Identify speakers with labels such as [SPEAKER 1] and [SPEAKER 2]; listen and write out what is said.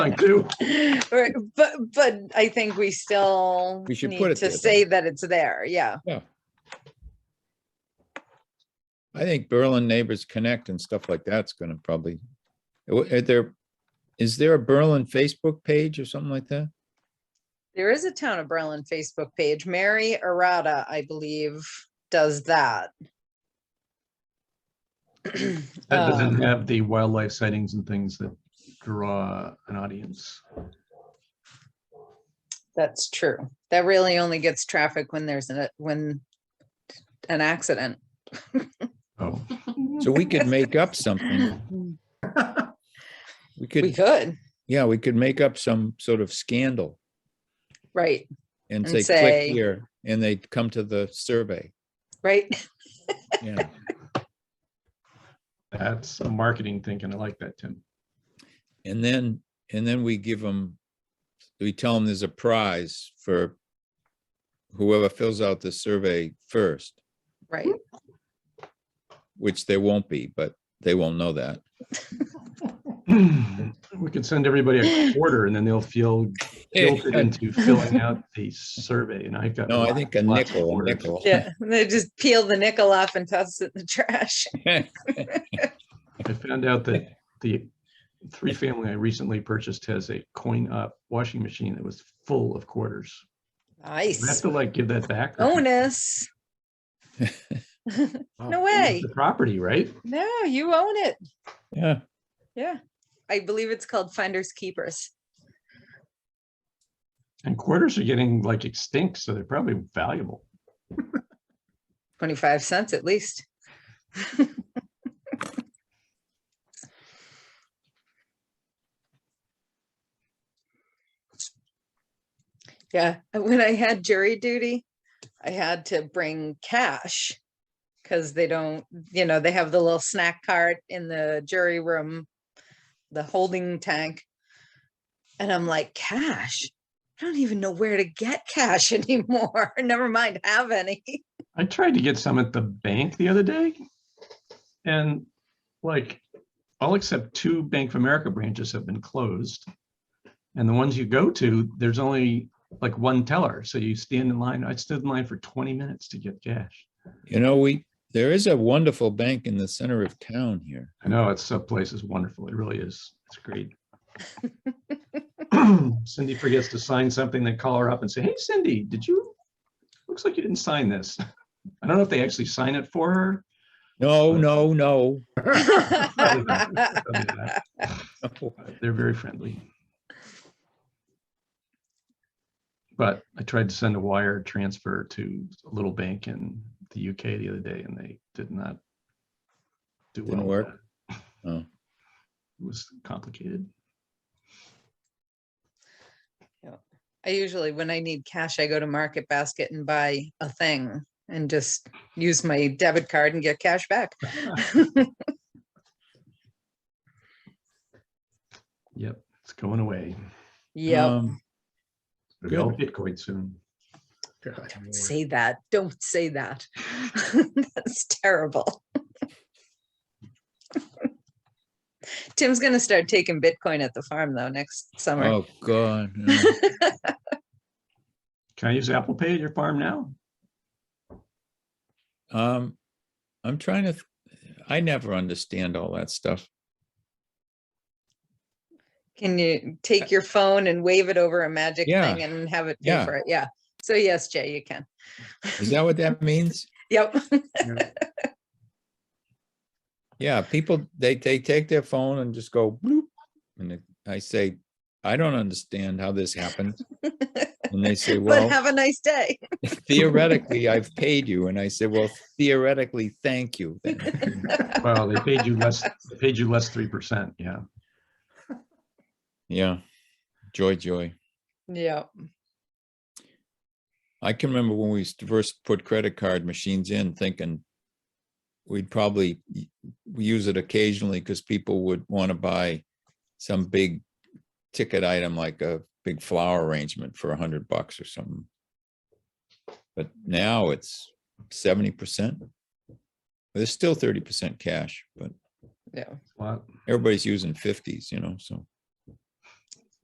[SPEAKER 1] I do.
[SPEAKER 2] Right, But, but I think we still
[SPEAKER 3] We should
[SPEAKER 2] need
[SPEAKER 3] put it
[SPEAKER 2] To
[SPEAKER 3] there, though.
[SPEAKER 2] say that it's there, yeah.
[SPEAKER 3] I think Berlin Neighbors Connect and stuff like that's gonna probably, are there, is there a Berlin Facebook page or something like that?
[SPEAKER 2] There is a Town of Berlin Facebook page. Mary Arata, I believe, does that.
[SPEAKER 1] That doesn't
[SPEAKER 2] Um,
[SPEAKER 1] have the wildlife sightings and things that draw an audience.
[SPEAKER 2] That's true. That really only gets traffic when there's a, when an accident.
[SPEAKER 1] Oh,
[SPEAKER 3] So we could make up something.
[SPEAKER 2] We
[SPEAKER 3] We could,
[SPEAKER 2] could,
[SPEAKER 3] yeah, we could make up some sort of scandal
[SPEAKER 2] right,
[SPEAKER 3] and
[SPEAKER 2] And
[SPEAKER 3] say, click
[SPEAKER 2] say-
[SPEAKER 3] here, and they come to the survey.
[SPEAKER 2] right?
[SPEAKER 3] Yeah,
[SPEAKER 1] that's a marketing thing, and I like that, Tim.
[SPEAKER 3] and then, and then we give them, we tell them there's a prize for whoever fills out the survey first,
[SPEAKER 2] Right.
[SPEAKER 3] which there won't be, but they won't know that.
[SPEAKER 1] We could send everybody a quarter and then they'll feel guilted into filling out the survey and I've got.
[SPEAKER 3] uh, No, I
[SPEAKER 1] lots-
[SPEAKER 3] think a
[SPEAKER 1] lots of
[SPEAKER 3] nickel, a
[SPEAKER 1] quarters.
[SPEAKER 3] nickel.
[SPEAKER 2] Yeah, they just peel the nickel off and toss it in the trash.
[SPEAKER 1] I found out that the three family I recently purchased has a coin up washing machine that was full of quarters. Do I have
[SPEAKER 2] Nice
[SPEAKER 1] to like give that back. or-
[SPEAKER 2] bonus. No
[SPEAKER 1] It's
[SPEAKER 2] way.
[SPEAKER 1] The property, right?
[SPEAKER 2] No, you own it.
[SPEAKER 3] Yeah,
[SPEAKER 2] Yeah. I believe it's called Finders Keepers.
[SPEAKER 1] And quarters are getting like extinct, so they're probably valuable.
[SPEAKER 2] 25 cents at least. Yeah, and when I had jury duty, I had to bring cash because they don't, you know, they have the little snack cart in the jury room, the holding tank. And I'm like, cash? I don't even know where to get cash anymore. Never mind have any.
[SPEAKER 1] I tried to get some at the bank the other day. And like, all except two Bank of America branches have been closed. And the ones you go to, there's only like one teller. So you stand in line. I stood in line for 20 minutes to get cash.
[SPEAKER 3] you know, we, there is a wonderful bank in the center of town here.
[SPEAKER 1] I know it's, that place is wonderful. It really is. It's great. Cindy forgets to sign something, they call her up and say, hey Cindy, did you, looks like you didn't sign this. I don't know if they actually sign it for her.
[SPEAKER 3] No, no, no.
[SPEAKER 1] Probably not. Probably not. But They're very friendly. But I tried to send a wire transfer to a little bank in the UK the other day and they did not do well.
[SPEAKER 3] Didn't
[SPEAKER 1] with
[SPEAKER 3] work?
[SPEAKER 1] that.
[SPEAKER 3] Oh.
[SPEAKER 1] It was complicated.
[SPEAKER 2] I usually, when I need cash, I go to Market Basket and buy a thing and just use my debit card and get cash back.
[SPEAKER 1] Yep, it's going away.
[SPEAKER 2] Yeah.
[SPEAKER 3] Um,
[SPEAKER 1] It'll be all
[SPEAKER 3] Good.
[SPEAKER 1] Bitcoin soon.
[SPEAKER 2] Don't say that. Don't say that. That's terrible. Tim's gonna start taking Bitcoin at the farm though next summer.
[SPEAKER 3] Oh, God. no.
[SPEAKER 1] Can I use Apple Pay at your farm now?
[SPEAKER 3] Um, I'm trying to, th- I never understand all that stuff.
[SPEAKER 2] Can you take your phone and wave it over a magic
[SPEAKER 3] Yeah.
[SPEAKER 2] thing and have it pay
[SPEAKER 3] Yeah.
[SPEAKER 2] for it? Yeah. So yes, Jay, you can.
[SPEAKER 3] Is that what that means?
[SPEAKER 2] Yep.
[SPEAKER 3] Yeah, people, they, they take their phone and just go bloop. And it- I say, I don't understand how this happened. And they say, well.
[SPEAKER 2] But have a nice day.
[SPEAKER 3] theoretically, I've paid you. And I said, well, theoretically, thank you. then."
[SPEAKER 1] Well, they paid you less, they paid you less three percent, yeah.
[SPEAKER 3] Yeah. Joy, joy.
[SPEAKER 2] Yeah.
[SPEAKER 3] I can remember when we used to first put credit card machines in thinking we'd probably y- use it occasionally because people would want to buy some big ticket item like a big flower arrangement for a hundred bucks or something. But now it's seventy percent. There's still thirty percent cash, but
[SPEAKER 2] Yeah.
[SPEAKER 1] Well,
[SPEAKER 3] everybody's using fifties, you know, so